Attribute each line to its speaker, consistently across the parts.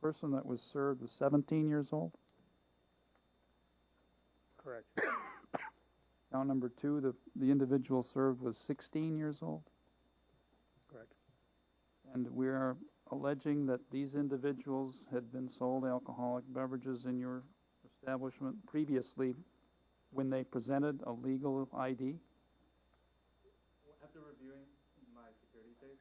Speaker 1: person that was served was 17 years old.
Speaker 2: Correct.
Speaker 1: Count number two, the, the individual served was 16 years old.
Speaker 2: Correct.
Speaker 1: And we are alleging that these individuals had been sold alcoholic beverages in your establishment previously when they presented a legal ID.
Speaker 3: Well, After reviewing my security tape,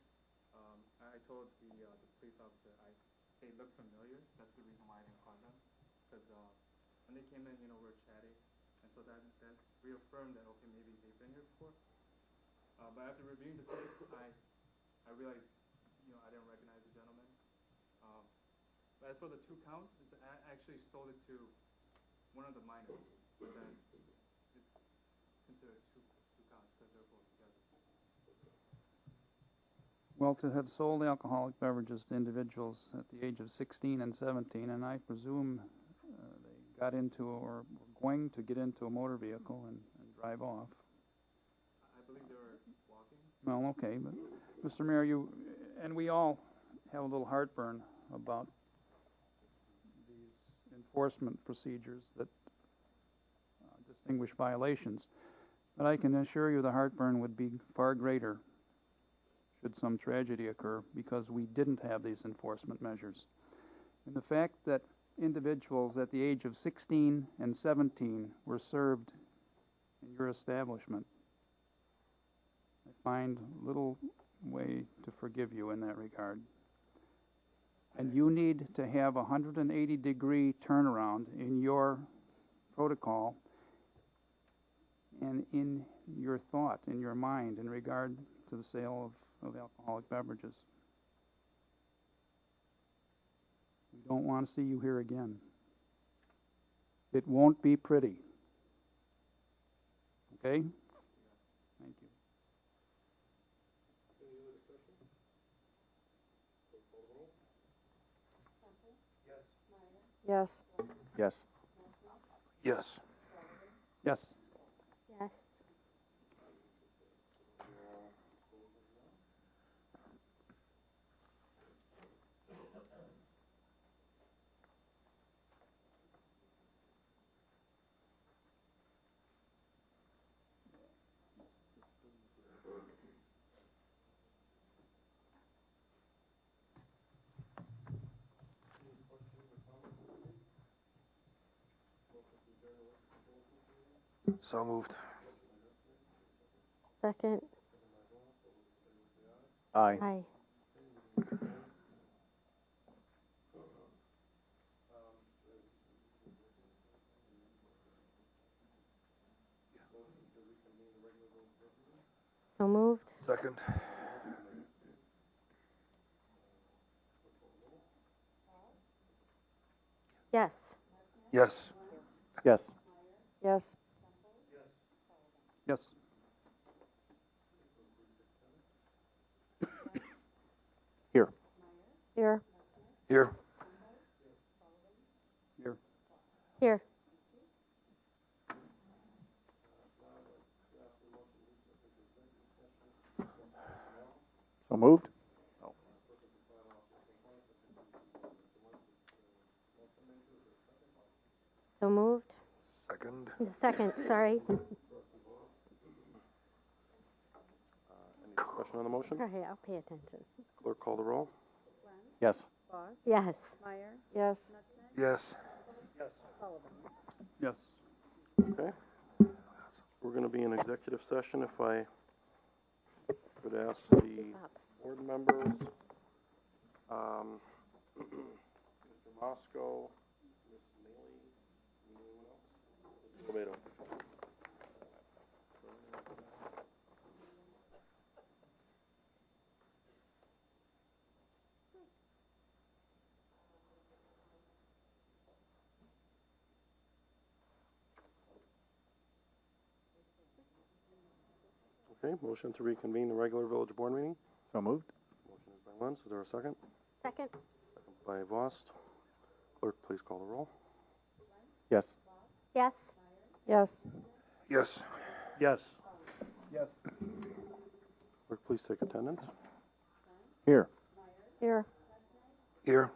Speaker 3: um, I I told the, uh, the police officer, I, they look familiar, that's the reason why I didn't call them. Cause, uh, when they came in, you know, we were chatting, and so that, that reaffirmed that, okay, maybe they've been here before. Uh, but after reviewing the tapes, I, I realized, you know, I didn't recognize the gentleman. Um, but as for the two counts, it's, I actually sold it to one of the minors, but then it's considered two, two counts, cause they're both together.
Speaker 1: Well, to have sold alcoholic beverages to individuals at the age of 16 and 17, and I presume uh, they got into or were going to get into a motor vehicle and, and drive off.
Speaker 3: I believe they were walking.
Speaker 1: Well, okay, but Mr. Mayor, you and we all have a little heartburn about these enforcement procedures that uh, distinguish violations. But I can assure you the heartburn would be far greater should some tragedy occur because we didn't have these enforcement measures. And the fact that individuals at the age of 16 and 17 were served in your establishment I find little way to forgive you in that regard. And you need to have a 180 degree turnaround in your protocol and in your thought, in your mind, in regard to the sale of, of alcoholic beverages. We don't want to see you here again. It won't be pretty. Okay? Thank you.
Speaker 4: Yes.
Speaker 5: Yes. Yes.
Speaker 1: Yes.
Speaker 4: Yes.
Speaker 5: So moved.
Speaker 4: Second.
Speaker 5: Aye.
Speaker 4: Aye. So moved.
Speaker 5: Second.
Speaker 4: Yes.
Speaker 5: Yes. Yes.
Speaker 4: Yes.
Speaker 1: Yes.
Speaker 5: Here.
Speaker 4: Here.
Speaker 5: Here.
Speaker 1: Here.
Speaker 4: Here.
Speaker 5: So moved.
Speaker 4: So moved.
Speaker 5: Second.
Speaker 4: The second, sorry.
Speaker 6: Any discussion on the motion?
Speaker 4: Sorry, I'll pay attention.
Speaker 6: Clerk, call the roll.
Speaker 5: Yes.
Speaker 4: Yes.
Speaker 7: Meyer,
Speaker 4: Yes.
Speaker 5: Yes.
Speaker 1: Yes.
Speaker 6: Okay. We're going to be in executive session if I could ask the board members, um, Mr. Mosco, Ms. Neely, anyone else? Mr. Lebato. Okay, motion to reconvene the regular village board meeting.
Speaker 5: So moved.
Speaker 6: Motion is by Lentz. Is there a second?
Speaker 4: Second.
Speaker 6: Second By Vost. Clerk, please call the roll.
Speaker 5: Yes.
Speaker 4: Yes. Yes.
Speaker 5: Yes.
Speaker 1: Yes. Yes.
Speaker 6: Clerk, please take attendance.
Speaker 5: Here.
Speaker 4: Here.
Speaker 5: Here.